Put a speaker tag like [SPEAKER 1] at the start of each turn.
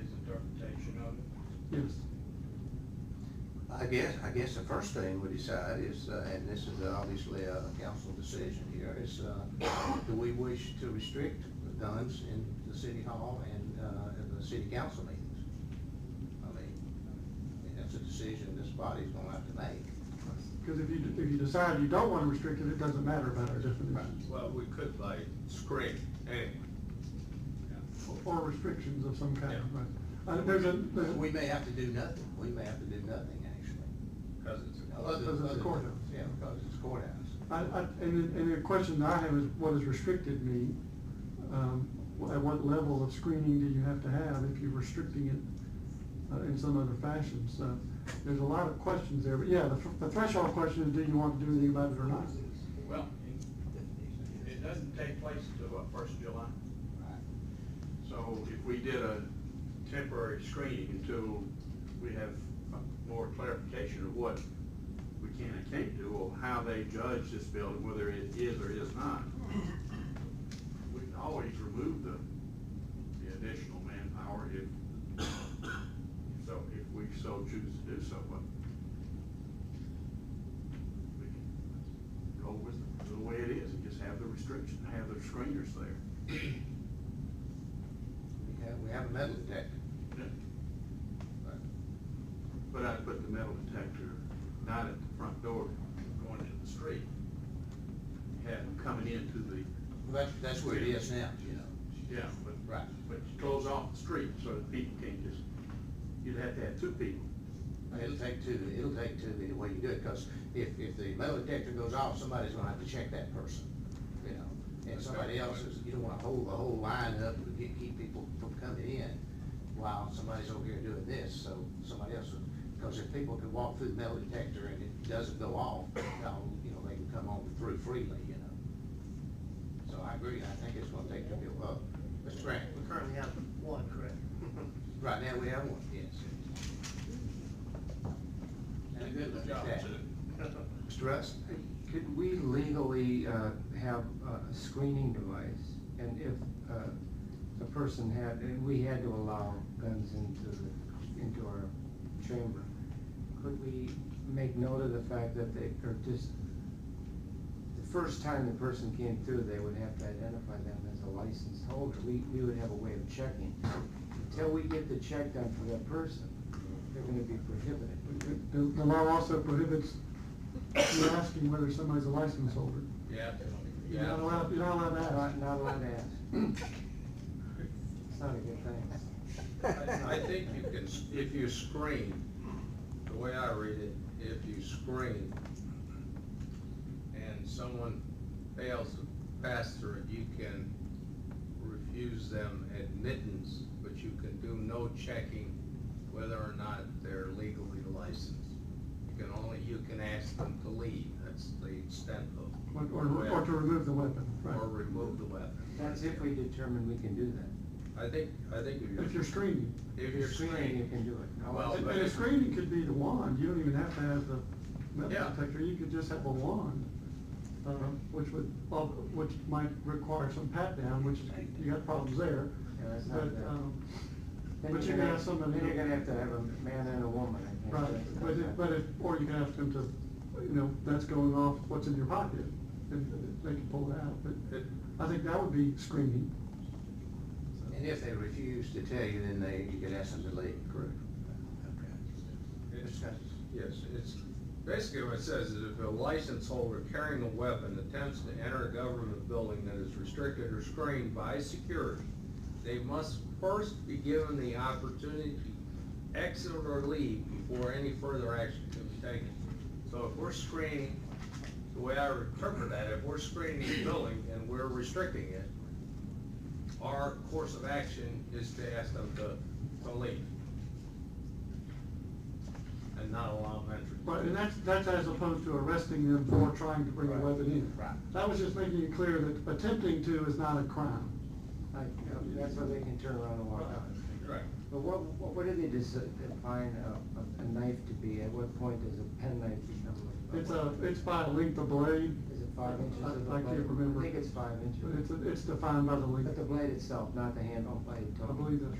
[SPEAKER 1] interpretation of it.
[SPEAKER 2] Yes.
[SPEAKER 3] I guess, I guess the first thing we decide is, uh, and this is obviously a council decision here, is, uh, do we wish to restrict guns in the city hall and, uh, in the city council meetings? I mean, I mean, that's a decision this body's gonna have to make.
[SPEAKER 2] Because if you, if you decide you don't want to restrict it, it doesn't matter about our definitions.
[SPEAKER 4] Well, we could like screen anyway.
[SPEAKER 2] Or restrictions of some kind,
[SPEAKER 4] Yeah.
[SPEAKER 2] right? Uh, there's a, there's
[SPEAKER 3] We may have to do nothing, we may have to do nothing, actually.
[SPEAKER 4] Cause it's a
[SPEAKER 2] Well, Because it's a courthouse.
[SPEAKER 3] Yeah, because it's courthouse.
[SPEAKER 2] I, I, and, the- and the question I have is, what does restricted mean? Um, wh- at what level of screening do you have to have if you're restricting it uh, in some other fashion? So there's a lot of questions there, but yeah, the, th- the threshold question is, do you want to do anything about it or not?
[SPEAKER 1] Well, it- it doesn't take place until what, first of July? So if we did a temporary screening until we have a more clarification of what we can and can't do, or how they judge this building, whether it is or is not, we can always remove the, the additional manpower if, so, if we so choose to do so, but we can go with the way it is and just have the restriction, have the screeners there.
[SPEAKER 3] We have, we have a metal detector. but-
[SPEAKER 1] But I put the metal detector not at the front door, going into the street. Have them coming into the,
[SPEAKER 3] Well, That's, that's where it is now, you know.
[SPEAKER 1] yeah, but.
[SPEAKER 3] Right.
[SPEAKER 1] But you close off the street so that people can't just, you'd have to have two people.
[SPEAKER 3] It'll take two, it'll take two either way you do it, because if, if the metal detector goes off, somebody's gonna have to check that person, you know? And somebody else is, you don't wanna hold the whole line up to keep, keep people from coming in while somebody's over here doing this, so somebody else, because if people can walk through the metal detector and it doesn't go off, now, you know, they can come on through freely, you know? So I agree, I think it's gonna take two people up. Mr. Grant?
[SPEAKER 5] We currently have one, correct?
[SPEAKER 3] Right now, we have one, yes. And a good look at that. Mr. Russ?
[SPEAKER 6] Could we legally uh, have a screening device? And if uh, a person had, and we had to allow guns into, the- into our chamber, could we make note of the fact that they are just, the first time the person came through, they would have to identify them as a licensed holder? We, we would have a way of checking. Until we get the check done for that person, they're gonna be prohibited.
[SPEAKER 2] The, the law also prohibits you asking whether somebody's a license holder.
[SPEAKER 4] Yeah.
[SPEAKER 2] You're not allowed, you're not allowed to ask.
[SPEAKER 6] Not, not allowed to ask. It's not a good thing.
[SPEAKER 4] I I think you can, s- if you screen, the way I read it, if you screen and someone fails to pass through it, you can refuse them admittance, but you can do no checking whether or not they're legally licensed. You can only, you can ask them to leave, that's the extent of,
[SPEAKER 2] Or, or or to remove the weapon, right?
[SPEAKER 4] or remove the weapon.
[SPEAKER 6] That's if we determine we can do that.
[SPEAKER 4] I think, I think if you're.
[SPEAKER 2] If you're screening.
[SPEAKER 4] If you're screening,
[SPEAKER 6] You can do it. No,
[SPEAKER 4] Well,
[SPEAKER 6] it's-
[SPEAKER 2] And
[SPEAKER 4] but-
[SPEAKER 2] a screening could be the wand, you don't even have to have the metal
[SPEAKER 4] Yeah.
[SPEAKER 2] detector, you could just have a wand, uh, which would, well, which might require some pat down, which is, you got problems there.
[SPEAKER 6] Yeah, that's
[SPEAKER 2] But,
[SPEAKER 6] not bad.
[SPEAKER 2] um,
[SPEAKER 6] then
[SPEAKER 2] but you're gonna have someone.
[SPEAKER 6] Then you're gonna have to have a man and a woman, I think.
[SPEAKER 2] Right,
[SPEAKER 6] That's not
[SPEAKER 2] but if,
[SPEAKER 6] bad.
[SPEAKER 2] but if, or you can ask them to, you know, that's going off, what's in your pocket, and they can pull it out, but
[SPEAKER 4] It-
[SPEAKER 2] I think that would be screening.
[SPEAKER 3] And if they refuse to tell you, then they, you could ask them to leave. Correct.
[SPEAKER 4] It's-
[SPEAKER 3] Okay.
[SPEAKER 4] Yes, it's, basically what it says is if a license holder carrying a weapon attempts to enter a government building that is restricted or screened by security, they must first be given the opportunity to exit or leave before any further action can be taken. So if we're screening, the way I interpret that, if we're screening the building and we're restricting it, our course of action is to ask them to, to leave and not allow them entry.
[SPEAKER 2] Right, and that's, that's as opposed to arresting them for trying to bring a
[SPEAKER 3] Right,
[SPEAKER 2] weapon in.
[SPEAKER 3] right.
[SPEAKER 2] That was just making it clear that attempting to is not a crime.
[SPEAKER 6] Like, you know, that's where they can turn around and walk out.
[SPEAKER 4] Right.
[SPEAKER 6] But what, what what do they dis- define a, a knife to be? At what point does a pen knife become a?
[SPEAKER 2] It's a, it's by length of blade.
[SPEAKER 6] Is it five inches
[SPEAKER 2] I-
[SPEAKER 6] of the
[SPEAKER 2] I can't
[SPEAKER 6] blade?
[SPEAKER 2] remember.
[SPEAKER 6] I think it's five inches.
[SPEAKER 2] But it's, it's defined by the length.
[SPEAKER 6] But the blade itself, not the handle, blade.
[SPEAKER 2] I
[SPEAKER 6] totally.
[SPEAKER 2] believe that's